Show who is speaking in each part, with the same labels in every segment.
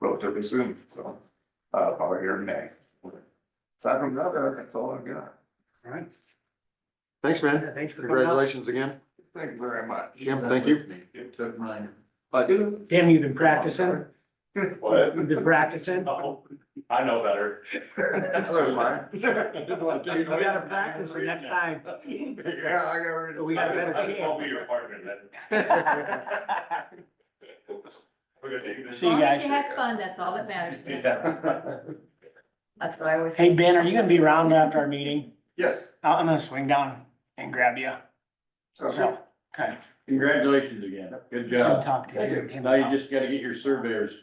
Speaker 1: relatively soon, so, uh, probably here in May. Aside from that, uh, that's all I've got.
Speaker 2: All right.
Speaker 3: Thanks, man.
Speaker 2: Yeah, Thanks for coming up.
Speaker 3: Congratulations again.
Speaker 1: Thank you very much.
Speaker 3: Jim, thank you.
Speaker 1: You took mine. I do.
Speaker 2: Tim, you've been practicing?
Speaker 4: What?
Speaker 2: You've been practicing?
Speaker 4: No, I know better.
Speaker 1: That was mine.
Speaker 2: We gotta practice for next time.
Speaker 1: Yeah, I got rid of.
Speaker 2: We got a better
Speaker 4: I will be
Speaker 2: chance.
Speaker 4: your partner then. We're gonna do this.
Speaker 2: See you
Speaker 5: As long as you
Speaker 2: guys.
Speaker 5: have fun, that's all that matters.
Speaker 4: Yeah.
Speaker 5: That's what I always.
Speaker 2: Hey, Ben, are you gonna be around after our meeting?
Speaker 1: Yes.
Speaker 2: I- I'm gonna swing down and grab you.
Speaker 1: sounds good.
Speaker 2: So, okay.
Speaker 6: Congratulations again. Good
Speaker 2: Just gonna
Speaker 6: job.
Speaker 2: talk to you. Tim,
Speaker 6: Now you just gotta get your surveyors.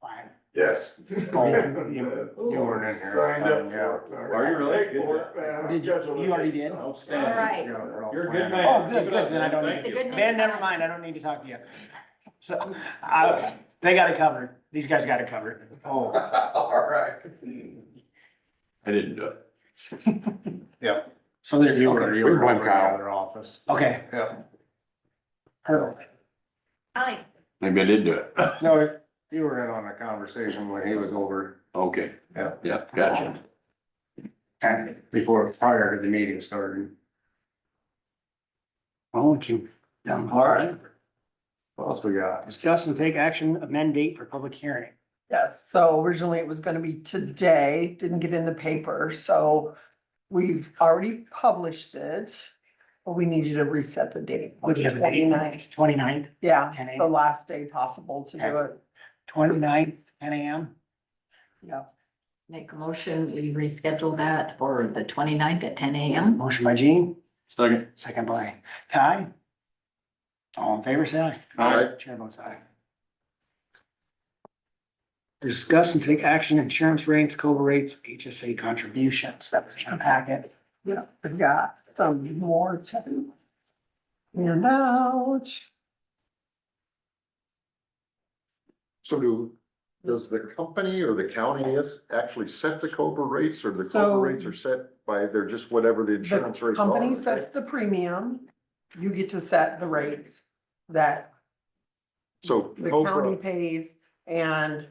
Speaker 2: fine.
Speaker 1: Yes.
Speaker 2: Oh,
Speaker 3: you- you weren't in here.
Speaker 1: Signed up
Speaker 3: Yeah.
Speaker 1: for it.
Speaker 6: Are you really?
Speaker 1: Yeah,
Speaker 6: Good.
Speaker 1: I'm
Speaker 2: Did you,
Speaker 1: scheduled.
Speaker 2: you already did?
Speaker 5: All
Speaker 6: Outstanding.
Speaker 5: right.
Speaker 6: You're a good man.
Speaker 2: Oh, good, good, then I don't need
Speaker 6: Thank
Speaker 5: The
Speaker 6: you.
Speaker 5: good news-
Speaker 2: Ben, never mind, I don't need to talk to you. So, I, they got it covered, these guys got it covered.
Speaker 3: Oh,
Speaker 1: All right.
Speaker 6: I didn't do it.
Speaker 2: So they're,
Speaker 3: you were,
Speaker 2: okay,
Speaker 3: you were
Speaker 1: We blame
Speaker 3: over in the
Speaker 1: Kyle.
Speaker 3: other office.
Speaker 2: okay,
Speaker 1: Yeah.
Speaker 2: hurdle.
Speaker 5: Hi.
Speaker 6: Maybe I did do it.
Speaker 3: No, you were in on a conversation when he was over
Speaker 6: Okay.
Speaker 3: Yeah.
Speaker 6: Yeah, gotcha.
Speaker 3: before, prior to the meeting started.
Speaker 2: I'll let you. down.
Speaker 3: All right. What else we got?
Speaker 2: Discuss and take action, amend date for public hearing.
Speaker 7: Yes, so originally it was gonna be today, didn't get in the paper, so we've already published it. But we need you to reset the date, which
Speaker 2: We have a
Speaker 7: is
Speaker 2: date? Oh,
Speaker 7: 29th.
Speaker 2: 29th,
Speaker 7: yeah,
Speaker 2: 10
Speaker 7: the
Speaker 2: a.m.
Speaker 7: last day possible to do it,
Speaker 2: 29th, ten AM.
Speaker 7: yeah.
Speaker 5: Make a motion, we reschedule that for the 29th at ten AM.
Speaker 2: Motion by Gene,
Speaker 6: Second.
Speaker 2: second by Ty. All in favor, say aye.
Speaker 6: Aye.
Speaker 2: Chair votes aye. Discuss and take action, insurance rates, COBRA rates, HSA contributions, that was in our packet.
Speaker 7: Yeah, I've got some more to. And out,
Speaker 8: So do, does the company or the county is actually set the Cobra rates or the
Speaker 7: So-
Speaker 8: Cobra rates are set by, they're just whatever the insurance
Speaker 7: the
Speaker 8: rates are?
Speaker 7: company
Speaker 8: right?
Speaker 7: sets the premium, you get to set the rates that
Speaker 8: So
Speaker 7: the county
Speaker 8: Cobra,
Speaker 7: pays and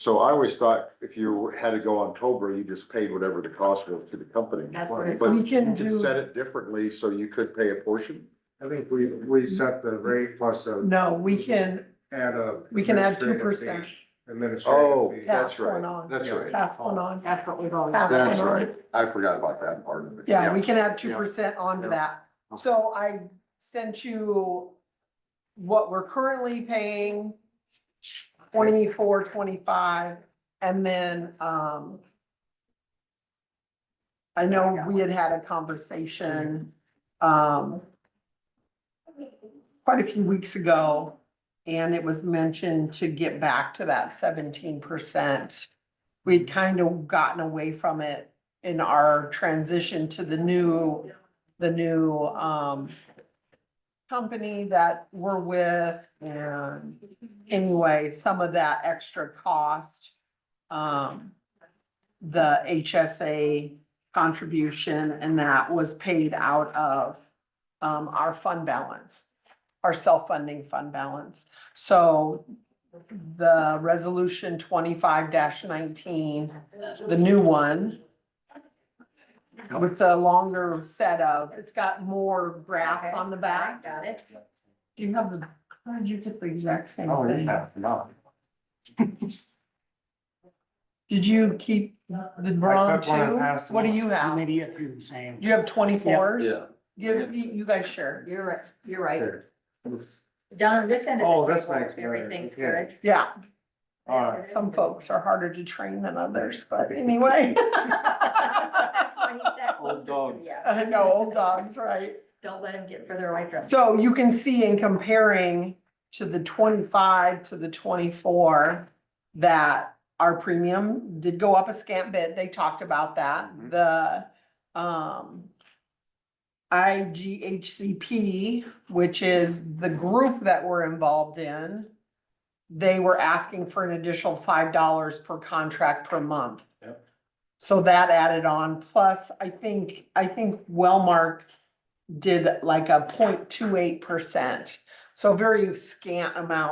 Speaker 8: so I always thought if you had to go on Cobra, you just paid whatever the cost was to the company.
Speaker 5: That's what it's-
Speaker 8: But
Speaker 7: We
Speaker 8: you
Speaker 7: can
Speaker 8: could
Speaker 7: do-
Speaker 8: Set it differently so you could pay a portion?
Speaker 3: I think we, we set the rate plus a,
Speaker 7: no, we can
Speaker 3: add a.
Speaker 7: We can add
Speaker 3: administrative
Speaker 7: 2%.
Speaker 3: fee, Administrative.
Speaker 8: Oh,
Speaker 3: fee.
Speaker 7: Yeah.
Speaker 8: that's
Speaker 7: Pass one
Speaker 8: right,
Speaker 7: on.
Speaker 8: that's right.
Speaker 7: pass one on.
Speaker 5: That's what we've always.
Speaker 7: Pass
Speaker 8: That's
Speaker 7: one on.
Speaker 8: right. I forgot about that part of it.
Speaker 7: Yeah, we can add two
Speaker 8: yeah.
Speaker 7: percent onto
Speaker 8: Yeah.
Speaker 7: that. So I sent you what we're currently paying, twenty-four, twenty-five, and then, um, I know we had had a conversation,
Speaker 8: Mm-hmm.
Speaker 7: um, quite a few weeks ago, and it was mentioned to get back to that seventeen percent. We'd
Speaker 8: Mm-hmm.
Speaker 7: kind of gotten away from it in our transition to the new, the new, um, company that we're with and anyway, some of that extra cost, um, the HSA contribution and that was paid out of, um, our fund balance, our self-funding fund balance. So the resolution twenty-five nineteen, the new one, with the longer setup. It's got more graphs on the back.
Speaker 5: Got it.
Speaker 7: Do you have the, how did you get the exact same
Speaker 3: Oh,
Speaker 7: thing?
Speaker 3: yeah, no.
Speaker 7: Did you keep the
Speaker 3: I
Speaker 7: brown
Speaker 3: took one and passed them
Speaker 7: too? What do
Speaker 3: on.
Speaker 7: you have?
Speaker 2: Maybe if you're the same.
Speaker 7: You have twenty-fours?
Speaker 8: Yeah.
Speaker 7: Give, you you guys share.
Speaker 5: You're right, you're right.
Speaker 3: Here.
Speaker 5: Down on this end
Speaker 3: Oh,
Speaker 5: of the
Speaker 3: this
Speaker 5: table,
Speaker 3: makes better.
Speaker 5: everything's
Speaker 3: Okay.
Speaker 5: good.
Speaker 7: Yeah,
Speaker 3: All right.
Speaker 7: some folks are harder to train than others, but anyway.
Speaker 5: When he's that
Speaker 6: Old
Speaker 5: close,
Speaker 6: dogs.
Speaker 5: yeah.
Speaker 7: I know, old dogs, right?
Speaker 5: Don't let him get further away from.
Speaker 7: So you can see in comparing to the twenty-five to the twenty-four, that our premium did go up a scant bit. They talked about that. The, um, IGHCP, which is the group that we're involved in, they were asking for an additional five dollars per contract per month.
Speaker 6: Yep.
Speaker 7: So that added on, plus I think, I think Wellmark did like a 0.28 percent. So a very scant amount